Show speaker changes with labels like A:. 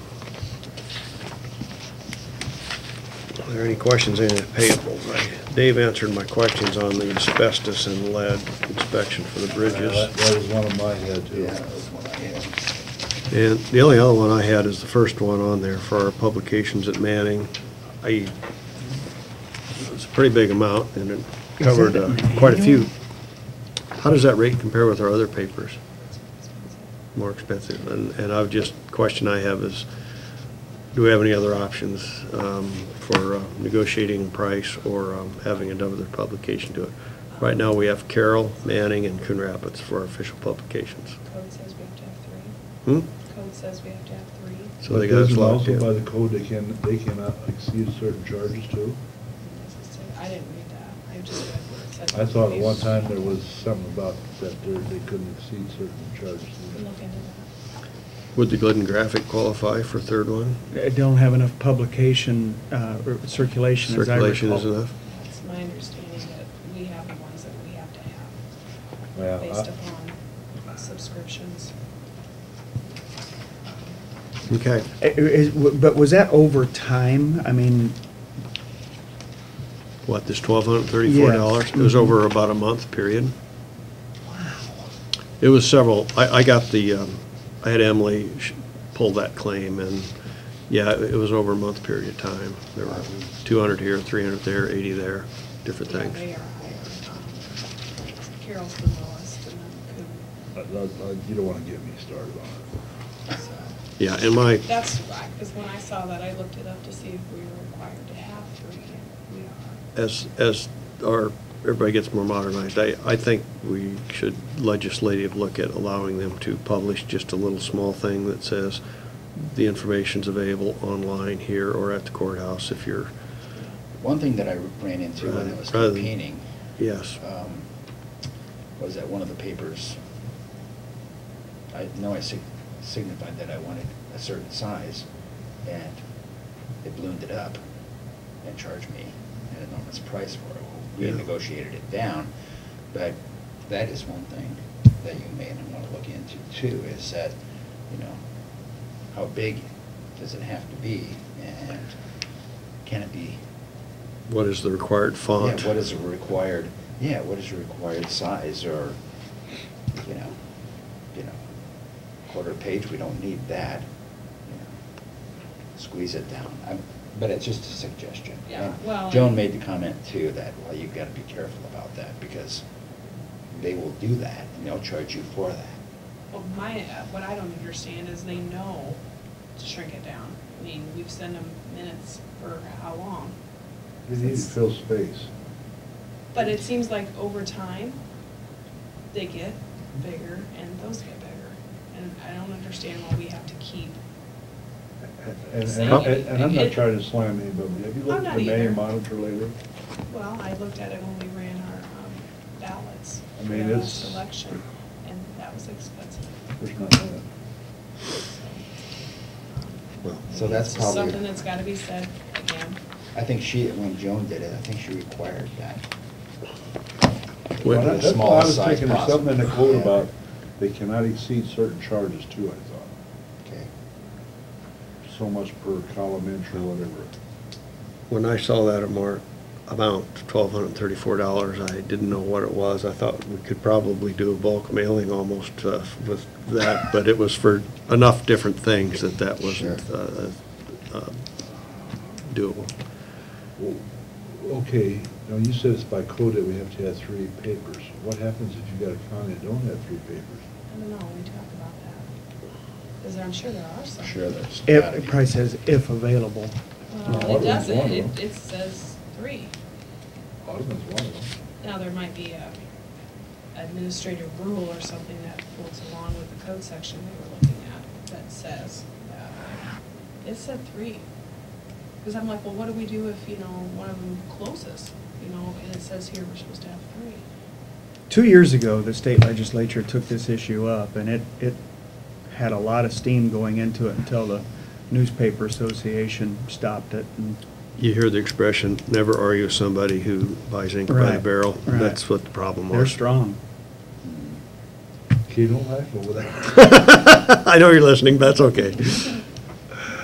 A: Are there any questions in the payables? I- Dave answered my questions on the asbestos and lead inspection for the bridges.
B: That that was one of uh, mine, yeah, too.
C: Yeah, that's what I had.
A: And the only other one I had is the first one on there for our publications at Manning. I, it's a pretty big amount, and it covered uh, quite a few. How does that rate compare with our other papers? More expensive, and, and I've just, question I have is, do we have any other options um, for uh, negotiating price or um, having another publication do it? Right now, we have Carroll, Manning, and Coon Rapids for our official publications.
D: Code says we have to have three.
A: Hmm?
D: Code says we have to have three.
A: So they
B: But
A: got us
B: doesn't
A: locked
B: Also
A: in.
B: by the code, they can, they cannot exceed certain charges too.
D: I didn't read that. I just read what it said.
B: I thought at one time there was something about that there, they couldn't exceed certain charges.
D: Look into that.
A: Would the Glidden Graphic qualify for third one?
E: I uh, don't have enough publication, uh, or circulation as I recall.
A: Circulation is enough?
D: It's my understanding that we have the ones that we have to have.
B: Well,
D: Based
B: I-
D: upon subscriptions.
A: Okay.
E: Uh, I- is- But was that over time? I mean,
A: What, this twelve hundred and thirty-four dollars?
E: Yes.
A: It was over about a month period. It was several, I, I got the, um, I had Emily sh- pull that claim and, yeah, it it was over a month period of time. There were two hundred here, three hundred there, eighty there, different
D: Yeah, They
A: things.
D: are higher. Um, Carol's the lowest and then
B: I- I- I- uh, You don't want to get me started on it.
D: Coon, so.
A: Yeah, and my,
D: That's, because when I saw that, I looked it up to see if we were required to have three, and we are.
A: as, as our, everybody gets more modernized, I, I think we should legislative look at allowing them to publish just a little small thing that says, the information's available online here or at the courthouse if you're,
C: One thing that I ran into when I was
A: Rather than-
C: campaigning
A: yes.
C: um, was that one of the papers, I know I sig- signified that I wanted a certain size, and it ballooned it up and charged me an enormous price for it. We
A: Yeah.
C: negotiated it down, but that is one thing that you may want to look into too, is that, you know, how big does it have to be, and can it be
A: What is the required font?
C: yeah, what is a required, yeah, what is your required size or, you know, you know, quarter page, we don't need that. you know. Squeeze it down. I'm- But it's just a suggestion.
D: Yeah,
C: And
D: well,
C: Joan
D: and-
C: made the comment too that, well, you've got to be careful about that because they will do that and they'll charge you for that.
D: Well, my, uh, what I don't understand is they know to shrink it down. I mean, we've sent them minutes for how long?
B: You need to fill space.
D: But it seems like over time, they get bigger and those get bigger. And I don't understand why we have to keep,
B: And,
D: Say
B: and,
D: it.
B: and I'm not trying to slam anybody. Have you
D: I'm
B: looked at
D: not
B: the
D: either.
B: Manning monitor lately?
D: well, I looked at it when we ran our um, ballots.
B: I mean,
D: for the last
B: it's-
D: Election, and that was expensive. Um,
B: There's nothing. in it.
C: Well, so that's
D: It's just
C: probably-
D: Something that's gotta be said again.
C: I think she, when Joan did it, I think she required that.
A: Well,
C: The
B: Well, That's why I
C: smallest
B: was
C: size
B: thinking of something in the
C: possible.
B: code
C: Yeah.
B: about, they cannot exceed certain charges too, I thought.
C: Okay.
B: So much per column inch or whatever.
A: When I saw that amount, amount, twelve hundred and thirty-four dollars, I didn't know what it was. I thought we could probably do a bulk mailing almost uh, with that, but it was for enough different things that that wasn't
C: Sure.
A: uh, uh, doable.
B: Well, Okay, now you said it's by code that we have to have three papers. What happens if you got a county that don't have three papers?
D: I don't know, we talk about that. Because I'm sure there are some.
C: Sure, there's.
E: if,
C: gotta
E: it
C: be.
E: probably says if available.
B: No,
D: Well,
B: Audubon's
D: it
B: one
D: doesn't,
B: of
D: it,
B: them.
D: it says three.
B: Audubon's one of them.
D: Now, there might be a administrative rule or something that folds along with the code section we were looking at that says that. It said three. Because I'm like, well, what do we do if, you know, one of them closes? You know, and it says here we're supposed to have three.
E: Two years ago, the state legislature took this issue up, and it, it had a lot of steam going into it until the Newspaper Association stopped it. and-
A: You hear the expression, never argue with somebody who buys ink by the
E: Right,
A: barrel.
E: right.
A: That's what the problem was.
E: They're strong.
C: Hmm.
B: Okay, don't laugh over that.
A: I know you're listening, but that's okay.